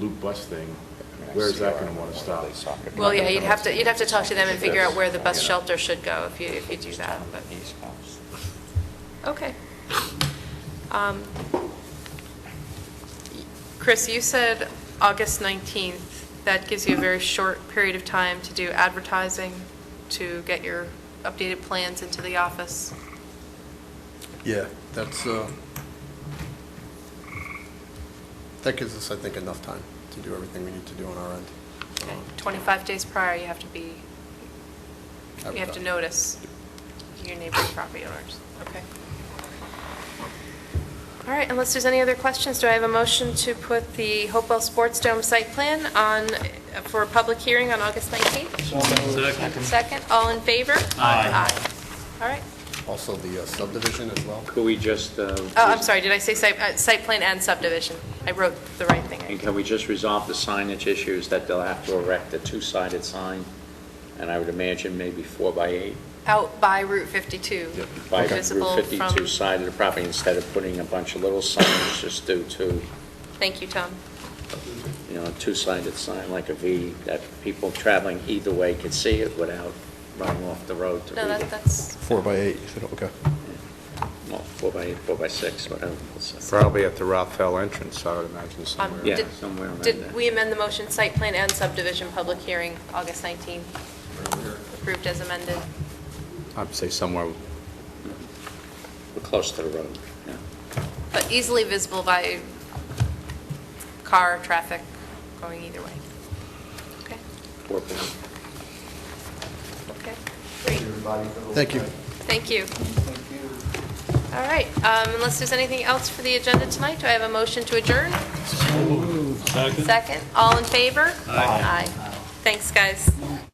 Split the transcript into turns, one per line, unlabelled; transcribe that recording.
loop bus thing, where is that going to want to stop?
Well, yeah, you'd have to, you'd have to talk to them and figure out where the bus shelter should go if you, if you do that, but, okay. Um, Chris, you said August 19th. That gives you a very short period of time to do advertising, to get your updated plans into the office.
Yeah, that's, uh, that gives us, I think, enough time to do everything we need to do on our end.
Okay,
Um,
25 days prior, you have to be, you have to
advertise.
notice your neighboring property owners. Okay. All right, unless there's any other questions, do I have a motion to put the Hopewell Sports Dome site plan on, for a public hearing on August 19th?
Second.
Second, all in favor?
Aye.
All right.
Also, the uh, subdivision as well.
Could we just, uh,
Oh, I'm sorry, did I say site, uh, site plan and subdivision? I wrote the right
And
thing.
can we just resolve the signage issues that they'll have to erect a two-sided sign? And I would imagine maybe four by eight,
Out by Route 52.
by
visible
Route 52
from-
side of the property, instead of putting a bunch of little signs just due to,
Thank you, Tom.
you know, a two-sided sign like a V, that people traveling either way could see it without running off the road to
No,
read
that,
it.
that's,
Four by eight, you said, okay.
Well, four by eight, four by six, whatever.
Probably at the Rothel entrance, I would imagine somewhere.
Yeah,
Um, Did-
somewhere around there.
Did we amend the motion, site plan and subdivision, public hearing, August 19th, approved as amended?
I'd say somewhere,
We're close to the road, yeah.
But easily visible by car, traffic, going either way. Okay,
Four by eight.
okay, great,
Thank you.
thank you. All right, um, unless there's anything else for the agenda tonight, do I have a motion to adjourn? Second, all in favor? Aye. Thanks, guys.